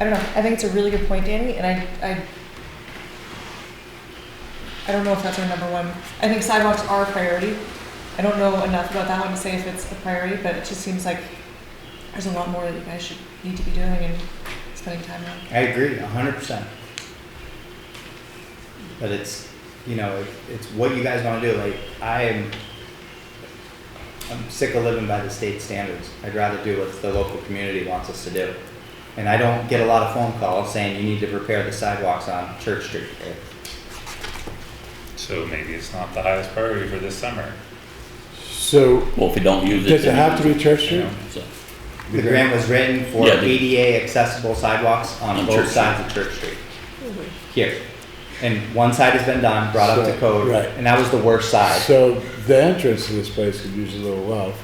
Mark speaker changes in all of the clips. Speaker 1: I don't know, I think it's a really good point, Danny, and I, I, I don't know if that's our number one, I think sidewalks are a priority. I don't know enough about that one to say if it's a priority, but it just seems like there's a lot more that you guys should need to be doing and spending time on.
Speaker 2: I agree, a hundred percent. But it's, you know, it- it's what you guys wanna do, like, I am, I'm sick of living by the state standards, I'd rather do what the local community wants us to do. And I don't get a lot of phone calls saying you need to repair the sidewalks on Church Street.
Speaker 3: So maybe it's not the highest priority for this summer.
Speaker 4: So,
Speaker 5: Well, if we don't use it.
Speaker 4: does it
Speaker 5: then-
Speaker 4: have to be Church
Speaker 3: You
Speaker 4: Street?
Speaker 3: know,
Speaker 5: So-
Speaker 2: The grant was written for
Speaker 5: Yeah, the-
Speaker 2: ADA accessible sidewalks on
Speaker 5: On
Speaker 2: both
Speaker 5: Church Street.
Speaker 2: sides of Church Street. Here, and one side has been done, brought up
Speaker 4: So,
Speaker 2: to code,
Speaker 4: right.
Speaker 2: and that was the worst side,
Speaker 4: So the entrance to this place could use a little love.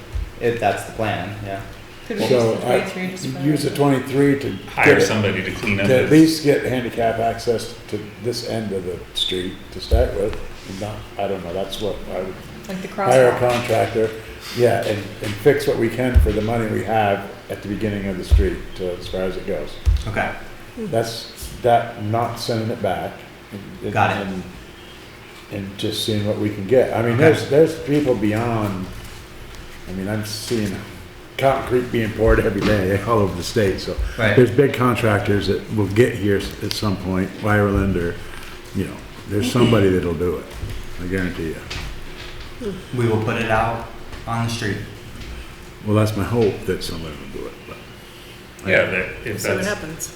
Speaker 2: if that's the plan, yeah.
Speaker 1: Could we
Speaker 4: So
Speaker 1: use the
Speaker 4: I,
Speaker 1: 23 just for-
Speaker 4: use the twenty-three to
Speaker 3: Hire
Speaker 4: get, it-
Speaker 3: somebody to clean up
Speaker 4: to at
Speaker 3: this.
Speaker 4: least get handicap access to this end of the street to start with. And Not, I don't know, that's what I would
Speaker 1: Like the
Speaker 4: hire a
Speaker 1: crosswalk,
Speaker 4: contractor, yeah, and, and fix what we can for the money we have at the beginning of the street to, as far as it goes.
Speaker 2: Okay.
Speaker 4: That's, that, not sending it back. and-
Speaker 2: Got it.
Speaker 4: and- And just seeing what we can get. I mean,
Speaker 2: Okay.
Speaker 4: there's, there's people beyond, I mean, I'm seeing concrete being poured every day all over the state, so.
Speaker 2: Right.
Speaker 4: There's big contractors that will get here s- at some point, Ireland or, you know, there's somebody that'll do it, I guarantee you.
Speaker 2: We will put it out on the street.
Speaker 4: Well, that's my hope that somebody will do it, but. I-
Speaker 3: Yeah, that, if
Speaker 6: See what
Speaker 3: that's,
Speaker 6: happens.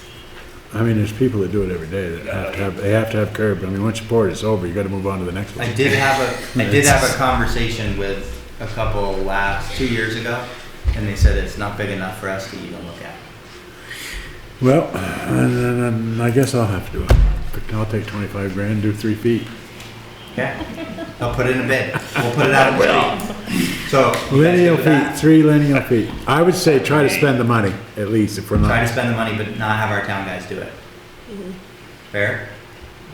Speaker 4: I mean, there's people that do it every day that have to have, they have to have curb. I mean, once you pour it, it's over. You gotta move on to the next one.
Speaker 2: I did have a I did have a conversation with a couple labs two years ago, and they said it's not big enough for us to even look at.
Speaker 4: Well, and then, um, I guess I'll have to do it. I'll take twenty-five grand, do three feet.
Speaker 2: Okay, I'll put it in a bid. We'll put it out on the street. So you guys good with
Speaker 4: Lineal feet,
Speaker 2: that?
Speaker 4: three lineal feet. I would say try to spend the money, at least, if we're
Speaker 2: Try to
Speaker 4: not.
Speaker 2: spend the money, but not have our town guys do it. Fair?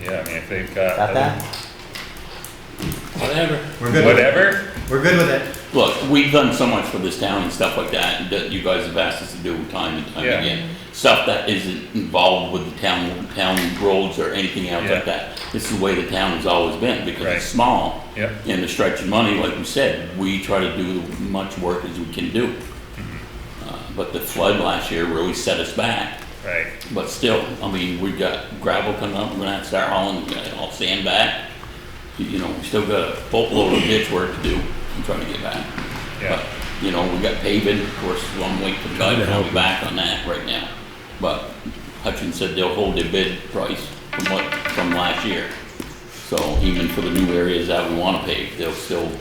Speaker 3: yeah, I mean, if they've got.
Speaker 2: Got
Speaker 3: other-
Speaker 2: that?
Speaker 7: Whatever.
Speaker 2: We're good. With it.
Speaker 3: Whatever,
Speaker 2: We're good with it.
Speaker 5: Look, we've done so much for this town and stuff like that, that you guys have asked us to do time and time
Speaker 3: Yeah.
Speaker 5: again. Stuff that isn't involved with the town, town roads or anything else
Speaker 3: Yeah.
Speaker 5: like that. This is the way the town has always been, because
Speaker 3: Right.
Speaker 5: it's small.
Speaker 3: Yep.
Speaker 5: And the stretch of money, like we said, we try to do as much work as we can do.
Speaker 3: Mm-hmm.
Speaker 5: Uh, But the flood last year really set us back.
Speaker 3: right,
Speaker 5: But still, I mean, we've got gravel coming up, we're gonna have to start hauling, we got all sand back. You- You know, we still got a boatload of ditch work to do, I'm trying to get back.
Speaker 3: yeah.
Speaker 5: You know, we got paving, of course, long wait for
Speaker 4: Trying
Speaker 5: God,
Speaker 4: to
Speaker 5: I'll
Speaker 4: help.
Speaker 5: be back on that right now. But Hutchins said they'll hold their bid price from what, from last year. So even for the new areas that we wanna pave, they'll still,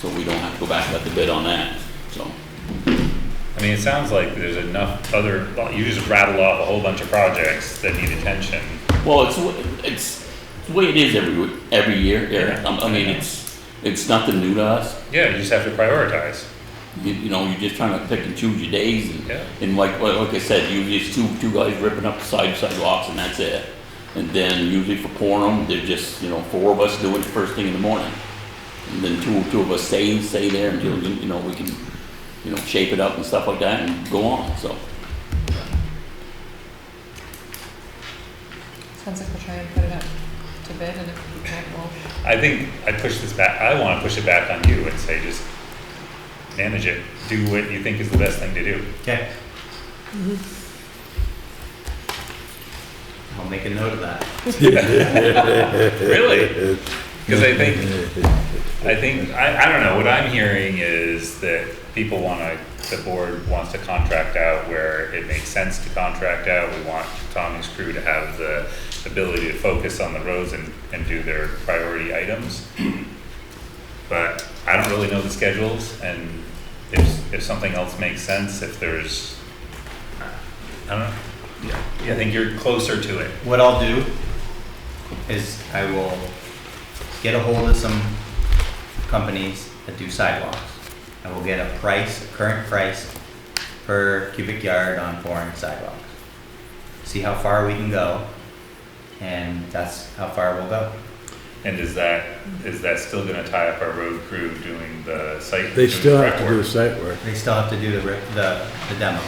Speaker 5: so we don't have to go back about the bid on that, so.
Speaker 3: I mean, it sounds like there's enough other, you just rattle off a whole bunch of projects that need attention.
Speaker 5: Well, it's, it's the way it is every, every year, Eric. I I mean, it's, it's nothing new to us.
Speaker 3: Yeah, you just have to prioritize.
Speaker 5: You, you know, you're just trying to pick and choose your days and,
Speaker 3: Yeah.
Speaker 5: and like, well, like I said, usually it's two, two guys ripping up the side sidewalks and that's it. And then usually for quorum, they're just, you know, four of us doing it first thing in the morning. And then two, two of us stay, stay there until, you know, we can, you know, shape it up and stuff like that and go on, so.
Speaker 1: sounds like we'll try and put it up to bid and if we can't, we'll.
Speaker 3: I think I push this back, I wanna push it back on you and say, just manage it, do what you think is the best thing to do.
Speaker 2: Okay. I'll make a note of that.
Speaker 4: Uh,
Speaker 3: Really? Because I think, I think, I, I don't know, what I'm hearing is that people wanna, the board wants to contract out where it makes sense to contract out. We want Tommy's crew to have the ability to focus on the roads and, and do their priority items. But I don't really know the schedules and if, if something else makes sense, if there's, I don't know. Yeah, I think you're closer to it.
Speaker 2: what I'll do is I will get a hold of some companies that do sidewalks. I will get a price, current price per cubic yard on foreign sidewalks. See how far we can go, and that's how far we'll go.
Speaker 3: And is that, is that still gonna tie up our road crew doing the site? doing the
Speaker 4: They still
Speaker 3: prep
Speaker 4: have to do
Speaker 3: work?
Speaker 4: site work.
Speaker 2: They still have to do the, re- the, the demo.